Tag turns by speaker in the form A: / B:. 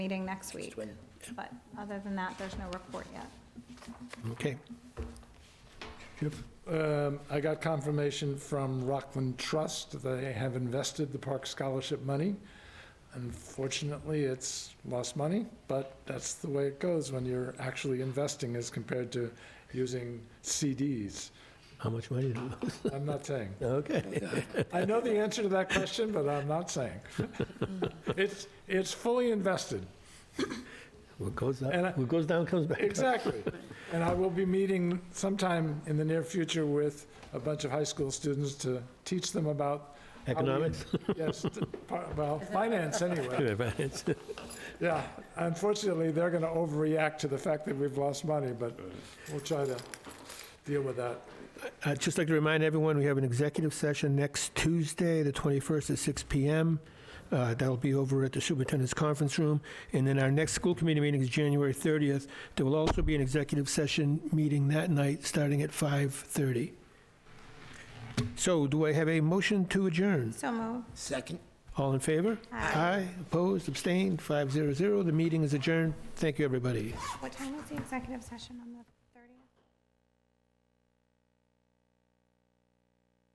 A: meeting next week.
B: when-
A: But other than that, there's no report yet.
C: Okay.
D: Um, I got confirmation from Rockland Trust that they have invested the park scholarship money. Unfortunately, it's lost money, but that's the way it goes when you're actually investing as compared to using CDs.
C: How much money? did it lose?
D: I'm not saying.
C: Okay.
D: I know the answer to that question, but I'm not saying. It's, it's fully invested.
C: What goes
D: And I-
C: up, what goes down comes back. up.
D: Exactly. And I will be meeting sometime in the near future with a bunch of high school students to teach them about. how we-
C: Economics?
D: Yes, t- par- well, finance anyway.
C: Yeah, right, it's-
D: Yeah, unfortunately, they're going to overreact to the fact that we've lost money, but we'll try to deal with that.
C: I'd Uh, just like to remind everyone, we have an executive session next Tuesday, the 21st at 6 PM. Uh, That'll be over at the Superintendent's Conference Room. And then our next school committee meeting is January 30th. There will also be an executive session meeting that night, starting at 5:30. So do I have a motion to adjourn?
A: So moved.
B: Second?
C: All in favor?
A: Aye.
C: opposed, abstained, 500. The meeting is adjourned. Thank you, everybody.
A: What time is the executive session on the